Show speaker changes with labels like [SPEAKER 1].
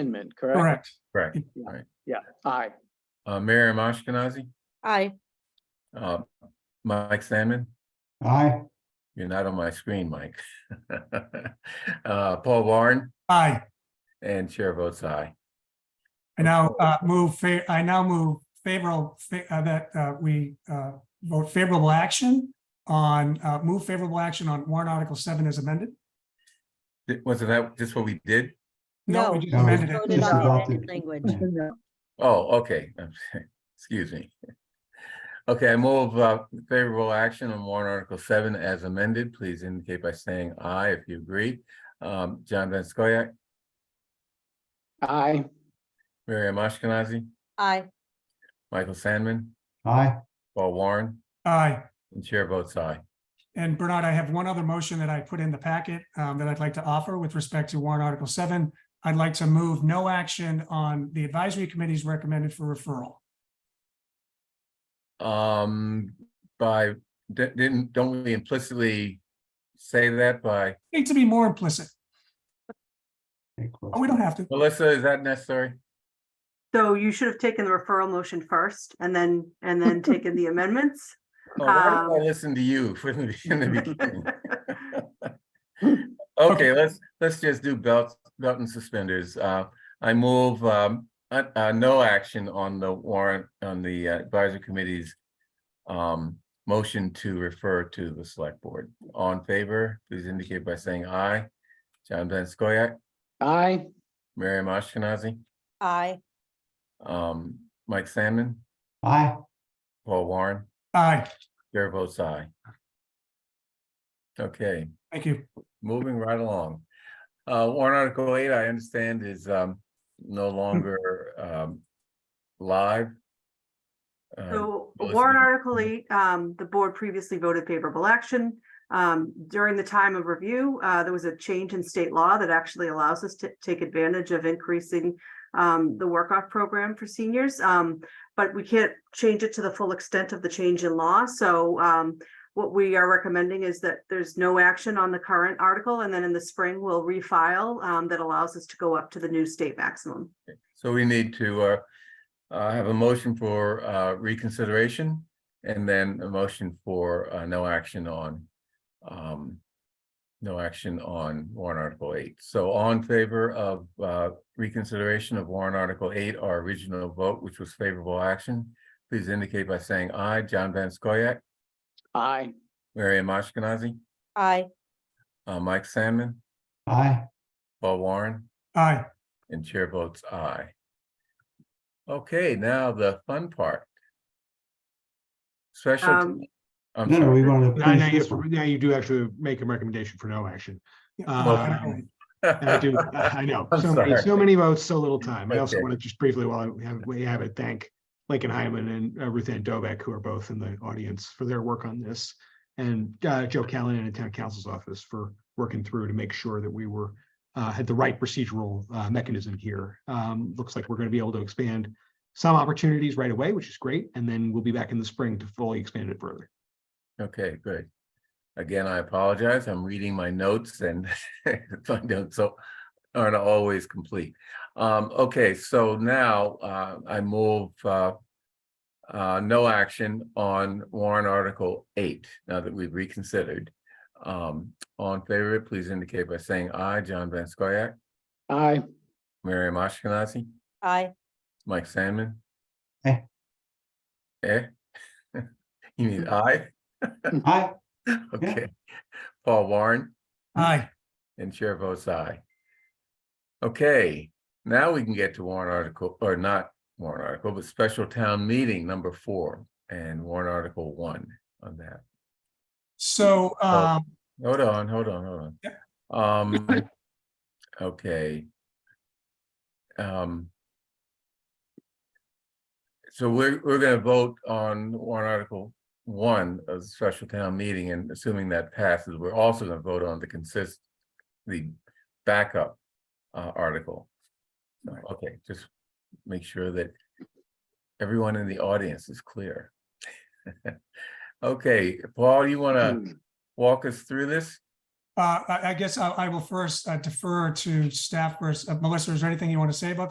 [SPEAKER 1] amendment, correct?
[SPEAKER 2] Correct.
[SPEAKER 3] Correct.
[SPEAKER 1] Yeah, aye.
[SPEAKER 3] Uh, Miriam Ashkenazi,
[SPEAKER 4] Aye.
[SPEAKER 3] uh, Mike Salmon,
[SPEAKER 2] Aye.
[SPEAKER 3] you're not on my screen, Mike. Uh, Paul Warren
[SPEAKER 2] Aye.
[SPEAKER 3] and Chair votes aye.
[SPEAKER 2] I now uh, move, fa- I now move favorable, fa- uh, that uh, we uh, vote favorable action on, uh, move favorable action on warrant article seven as amended.
[SPEAKER 3] Th- Wasn't that just what we did?
[SPEAKER 2] No, we
[SPEAKER 4] No.
[SPEAKER 2] just amended it.
[SPEAKER 4] Voted on the amended language.
[SPEAKER 3] Oh, okay. Excuse me. Okay, I move uh, favorable action on warrant article seven as amended. Please indicate by saying aye if you agree. Um, John Van Scoyac,
[SPEAKER 1] Aye,
[SPEAKER 3] Miriam Ashkenazi,
[SPEAKER 4] Aye.
[SPEAKER 3] Michael Sandman,
[SPEAKER 5] Aye,
[SPEAKER 3] Paul Warren,
[SPEAKER 2] Aye.
[SPEAKER 3] and Chair votes aye.
[SPEAKER 2] And Bernard, I have one other motion that I put in the packet um, that I'd like to offer with respect to warrant article seven. I'd like to move no action on the advisory committee's recommended for referral.
[SPEAKER 3] Um, by, di- didn't, don't we implicitly say that by,
[SPEAKER 2] Need to be more implicit.
[SPEAKER 5] Take close.
[SPEAKER 2] Oh, we don't have to.
[SPEAKER 3] Melissa, is that necessary?
[SPEAKER 6] So you should have taken the referral motion first and then, and then taken the amendments.
[SPEAKER 3] Oh, why did
[SPEAKER 6] Um,
[SPEAKER 3] I listen to you from the in the beginning? Okay, let's, let's just do belts, belt and suspenders. Uh, I move, um, uh, uh, no action on the warrant, on the uh, advisory committee's um, motion to refer to the select board. All in favor, please indicate by saying aye. John Van Scoyac,
[SPEAKER 1] aye,
[SPEAKER 3] Miriam Ashkenazi.
[SPEAKER 4] Aye.
[SPEAKER 3] Um, Mike Sandman,
[SPEAKER 5] Aye,
[SPEAKER 3] Paul Warren,
[SPEAKER 2] Aye.
[SPEAKER 3] Chair votes aye. Okay,
[SPEAKER 2] Thank you.
[SPEAKER 3] moving right along. Uh, warrant article eight, I understand is, um, no longer, um, live. Um,
[SPEAKER 6] So
[SPEAKER 3] Melissa,
[SPEAKER 6] warrant
[SPEAKER 3] you-
[SPEAKER 6] article eight, um, the board previously voted favorable action. Um, during the time of review, uh, there was a change in state law that actually allows us to take advantage of increasing um, the work off program for seniors. Um, but we can't change it to the full extent of the change in law. So um, what we are recommending is that there's no action on the current article and then in the spring we'll refile um, that allows us to go up to the new state maximum.
[SPEAKER 3] so we need to, uh, uh, have a motion for, uh, reconsideration and then a motion for, uh, no action on, um, no action on warrant article eight. So all in favor of uh, reconsideration of warrant article eight, our original vote, which was favorable action, please indicate by saying aye. John Van Scoyac,
[SPEAKER 1] aye,
[SPEAKER 3] Miriam Ashkenazi,
[SPEAKER 4] Aye.
[SPEAKER 3] uh, Mike Sandman,
[SPEAKER 5] aye,
[SPEAKER 3] Paul Warren,
[SPEAKER 2] Aye.
[SPEAKER 3] and chair votes aye. Okay, now the fun part. Special.
[SPEAKER 6] Um,
[SPEAKER 3] I'm
[SPEAKER 5] no, no,
[SPEAKER 3] sorry.
[SPEAKER 5] we want to.
[SPEAKER 7] Now, now, yes, now you do actually make a recommendation for no action.
[SPEAKER 2] Yeah.
[SPEAKER 7] I do, I know,
[SPEAKER 3] I'm
[SPEAKER 7] so many,
[SPEAKER 3] sorry.
[SPEAKER 7] so many votes, so little time. I also
[SPEAKER 3] Okay.
[SPEAKER 7] want to just briefly, while we have, we have it, thank Lincoln Hyman and uh, Ruth Ann Dovek, who are both in the audience for their work on this. And uh, Joe Callahan in Town Council's office for working through to make sure that we were, uh, had the right procedural uh, mechanism here. Um, Looks like we're going to be able to expand some opportunities right away, which is great, and then we'll be back in the spring to fully expand it further.
[SPEAKER 3] Okay, good. Again, I apologize. I'm reading my notes and my notes so aren't always complete. Um, okay, so now uh I move uh. Uh, no action on warrant article eight, now that we've reconsidered. Um, all in favor, please indicate by saying aye. John Van Scoyac,
[SPEAKER 1] aye,
[SPEAKER 3] Miriam Ashkenazi,
[SPEAKER 4] Aye.
[SPEAKER 3] Mike Sandman.
[SPEAKER 5] Eh.
[SPEAKER 3] Eh? You need aye?
[SPEAKER 5] Aye,
[SPEAKER 3] Okay. Paul Warren?
[SPEAKER 2] Aye.
[SPEAKER 3] And chair votes aye. Okay, now we can get to warrant article, or not warrant article, but special town meeting number four and warrant article one on that.
[SPEAKER 2] So um,
[SPEAKER 3] Hold on, hold on, hold on. Um, okay. Um. So we're, we're gonna vote on warrant article one of the special town meeting and assuming that passes, we're also gonna vote on the consist, the backup uh, article. So, Okay, just make sure that everyone in the audience is clear. Okay, Paul, you wanna
[SPEAKER 1] Hmm.
[SPEAKER 3] walk us through this?
[SPEAKER 2] Uh, I, I guess I, I will first uh, defer to staff first. Uh, Melissa, is there anything you want to say about